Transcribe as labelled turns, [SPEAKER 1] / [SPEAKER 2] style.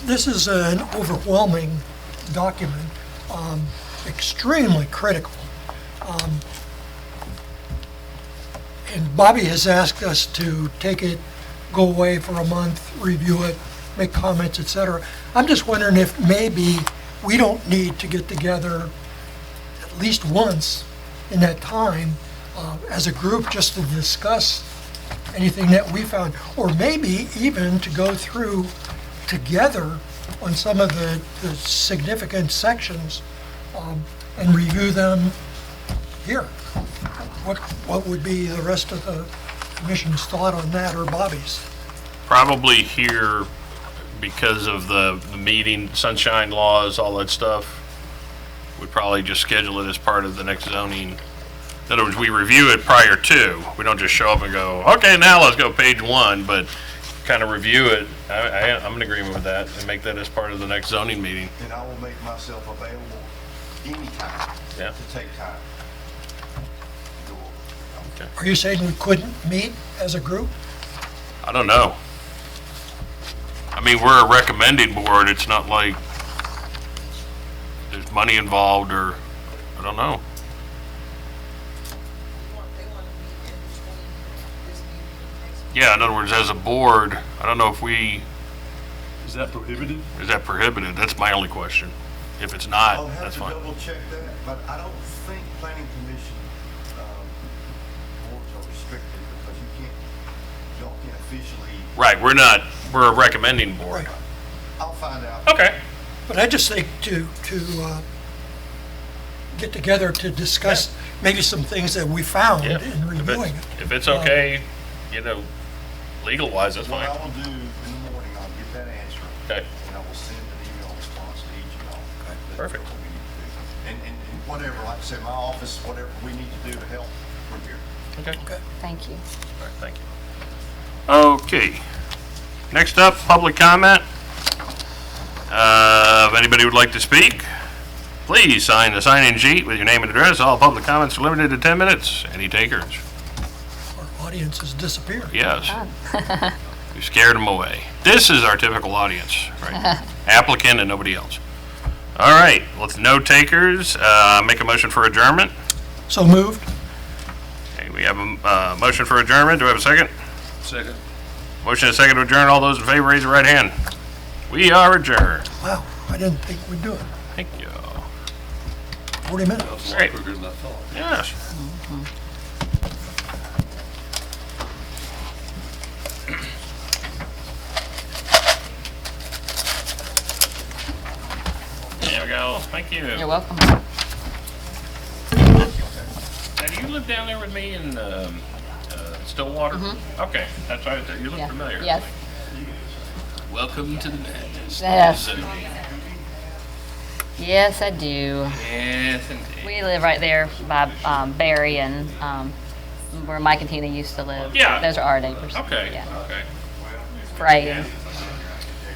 [SPEAKER 1] This is an overwhelming document, um, extremely critical. Um, And Bobby has asked us to take it, go away for a month, review it, make comments, et cetera. I'm just wondering if maybe we don't need to get together at least once in that time uh, as a group just to discuss anything that we found, or maybe even to go through together on some of the, the significant sections um, and review them here. What, what would be the rest of the commission's thought on that, or Bobby's?
[SPEAKER 2] Probably here because of the the meeting, sunshine laws, all that stuff. We'd probably just schedule it as part of the next zoning. In other words, we review it prior to. We don't just show up and go, okay, now let's go page one, but kind of review it. I, I, I'm in agreement with that and make that as part of the next zoning meeting.
[SPEAKER 3] And I will make myself available anytime
[SPEAKER 2] Yeah.
[SPEAKER 3] to take time. to go over.
[SPEAKER 1] Are you saying we couldn't meet as a group?
[SPEAKER 2] I don't know. I mean, we're a recommending board. It's not like there's money involved or, I don't know.
[SPEAKER 4] want, they want to meet in between this meeting and next meeting.
[SPEAKER 2] Yeah, in other words, as a board, I don't know if we,
[SPEAKER 5] Is that prohibited?
[SPEAKER 2] is that prohibited? That's my only question. If it's not,
[SPEAKER 3] I'll have
[SPEAKER 2] that's
[SPEAKER 3] to
[SPEAKER 2] fine.
[SPEAKER 3] double check that, but I don't think planning commission, um, boards are restricted because you can't, y'all can't officially,
[SPEAKER 2] Right, we're not, we're a recommending board.
[SPEAKER 1] Right.
[SPEAKER 3] I'll find out.
[SPEAKER 2] Okay.
[SPEAKER 1] But I just think to, to uh, get together to discuss maybe some things that we found
[SPEAKER 2] Yeah.
[SPEAKER 1] in
[SPEAKER 2] If
[SPEAKER 1] reviewing
[SPEAKER 2] it's,
[SPEAKER 1] it.
[SPEAKER 2] if it's okay, you know, legal wise, that's
[SPEAKER 3] What
[SPEAKER 2] fine.
[SPEAKER 3] I will do in the morning, I'll get that answer.
[SPEAKER 2] Okay.
[SPEAKER 3] And I will send an email response to each of y'all. That's
[SPEAKER 2] Perfect.
[SPEAKER 3] what we need to do. And, and and whatever, like I said, my office, whatever we need to do to help, we're here.
[SPEAKER 2] Okay. All right,
[SPEAKER 6] Thank you.
[SPEAKER 2] thank you. Okay. Next up, public comment. Uh, if anybody would like to speak, please sign the sign-in sheet with your name and address. All public comments are limited to 10 minutes. Any takers?
[SPEAKER 1] Our audience has disappeared.
[SPEAKER 2] Yes. We scared them away. This is our typical audience, right? Applicant and nobody else. All right, with no takers, uh, make a motion for adjournment.
[SPEAKER 1] So moved?
[SPEAKER 2] Okay, we have a, uh, motion for adjournment. Do we have a second? Second. Motion and second to adjourn. All those in favor, raise your right hand. We are adjourned.
[SPEAKER 1] Wow, I didn't think we'd do it.
[SPEAKER 2] Thank you.
[SPEAKER 1] 40 minutes.
[SPEAKER 2] All right. Yes. There we go. Thank you.
[SPEAKER 6] You're welcome.
[SPEAKER 2] Now, do you live down there with me in um, uh, Stillwater? Okay, that's right. You look
[SPEAKER 6] Mm-hmm. Yeah.
[SPEAKER 2] familiar.
[SPEAKER 6] Yes.
[SPEAKER 2] Welcome to the madness.
[SPEAKER 6] Yes.
[SPEAKER 2] So-
[SPEAKER 6] Yes, I do.
[SPEAKER 2] Yes, indeed.
[SPEAKER 6] We live right there by um, Barry and um, where Mike and Tina used to live.
[SPEAKER 2] Yeah.
[SPEAKER 6] Those are our neighbors.
[SPEAKER 2] okay.
[SPEAKER 6] Yeah.
[SPEAKER 2] Okay.
[SPEAKER 6] Frey.